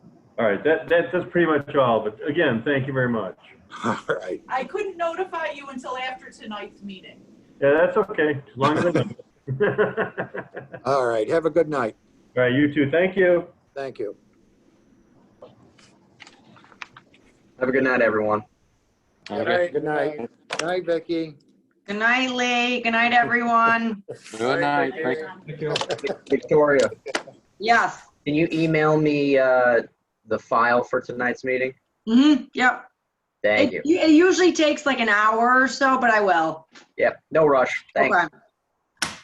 All right, that, that, that's pretty much all, but again, thank you very much. All right. I couldn't notify you until after tonight's meeting. Yeah, that's okay, as long as I know. All right. Have a good night. All right, you too, thank you. Thank you. Have a good night, everyone. All right. Good night. Good night, Vicky. Good night, Lee. Good night, everyone. Good night. Thank Victoria, Yes. can you email me uh, the file for tonight's meeting? Mm-hmm. Yep. Thank It, you. it usually takes like an hour or so, but I will. Yep, no rush. Thanks. Okay.